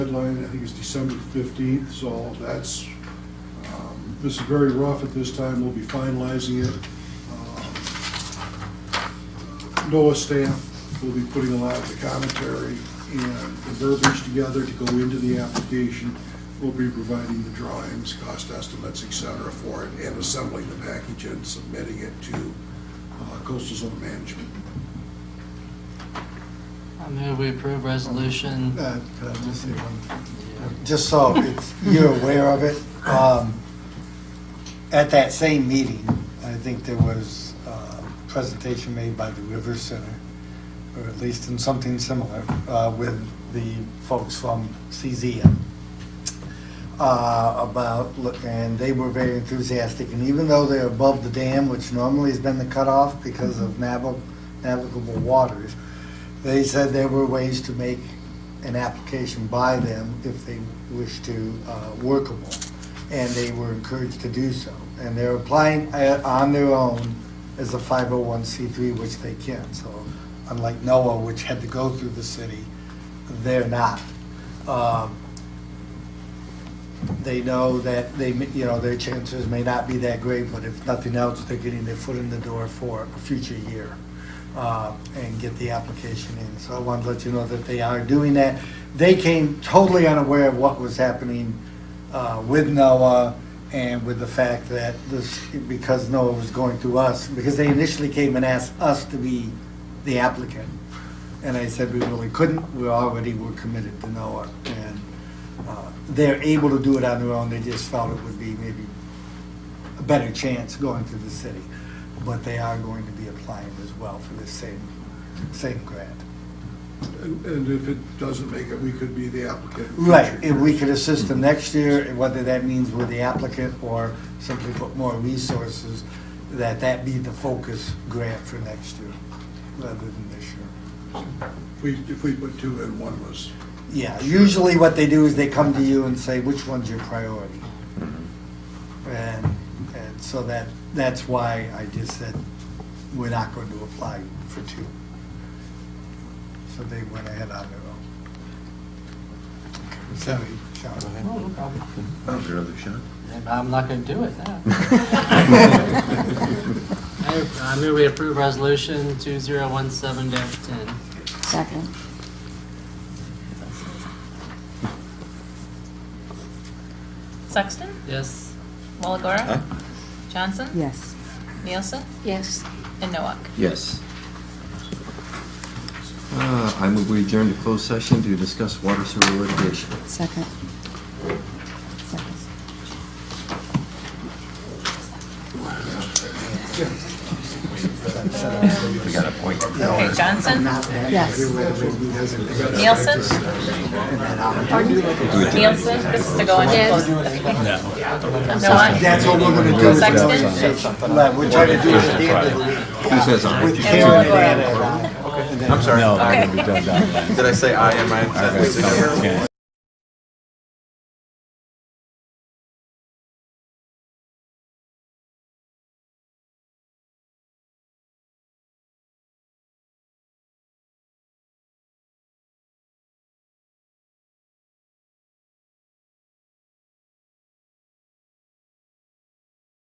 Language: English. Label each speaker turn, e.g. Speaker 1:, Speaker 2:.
Speaker 1: deadline, I think, is December 15th, so that's, um, this is very rough at this time, we'll be finalizing it. Um, NOAA staff will be putting a lot of the commentary and the verbiage together to go into the application. We'll be providing the drawings, cost estimates, et cetera, for it, and assembling the package and submitting it to uh, coastal zone management.
Speaker 2: I move we approve resolution.
Speaker 3: Uh, Could I just say one thing?
Speaker 2: Yeah.
Speaker 3: Just so it's, you're aware of it, um, at that same meeting, I think there was a presentation made by the River Center, or at least in something similar, uh, with the folks from CZM uh, about, look, and they were very enthusiastic, and even though they're above the dam, which normally has been the cutoff because of nav- navigable waters, they said there were ways to make an application by them if they wish to, uh, workable, and they were encouraged to do so. And they're applying uh, on their own as a 501c3, which they can, so unlike NOAA, which had to go through the city, they're not. Um, they know that they, may- you know, their chances may not be that great, but if nothing else, they're getting their foot in the door for a future year uh, and get the application in. So I wanted to let you know that they are doing that. They came totally unaware of what was happening uh, with NOAA and with the fact that this, because NOAA was going through us, because they initially came and asked us to be the applicant. And I said, we really couldn't, we already were committed to NOAA. And uh, they're able to do it on their own, they just felt it would be maybe a better chance going through the city. But they are going to be applying as well for the same, same grant.
Speaker 1: And and if it doesn't make it, we could be the applicant. in future
Speaker 3: Right, if we
Speaker 1: years.
Speaker 3: could assist them next year, and whether that means we're the applicant or simply put more resources, that that be the focus grant for next year, rather than this year.
Speaker 1: If we, if we put two in, one was,
Speaker 3: Yeah, usually what they do is they come to you and say, which one's your priority? And, and so that, that's why I just said, we're not going to apply for two. So they went ahead on their own. Sorry, Sean.
Speaker 2: Oh, no problem.
Speaker 4: That was your other shot.
Speaker 2: Yeah, but I'm not going to do it now. I I move we approve resolution 2017-10.
Speaker 5: Second.
Speaker 6: Sexton,
Speaker 2: Yes,
Speaker 6: Walagora,
Speaker 4: Huh?
Speaker 6: Johnson,
Speaker 5: Yes.
Speaker 6: Nielsen,
Speaker 5: Yes.
Speaker 6: and Noak.
Speaker 4: Yes. Uh, I move we adjourn to closed session to discuss water sewer litigation.
Speaker 5: Second. Second.
Speaker 6: Okay, Johnson,
Speaker 5: Yes.
Speaker 6: Nielsen. Nielsen, this is to go into
Speaker 5: Yes.
Speaker 6: closed. Noak,
Speaker 3: That's what we're gonna do. is we're gonna
Speaker 6: Sexton?
Speaker 3: say something. Like, We're trying to do it at the end of the
Speaker 4: Who says aye?
Speaker 3: With
Speaker 6: And
Speaker 3: Karen
Speaker 6: Walagora.
Speaker 3: and Anna.
Speaker 4: I'm sorry.
Speaker 6: Okay.
Speaker 4: Did I say aye? Am I?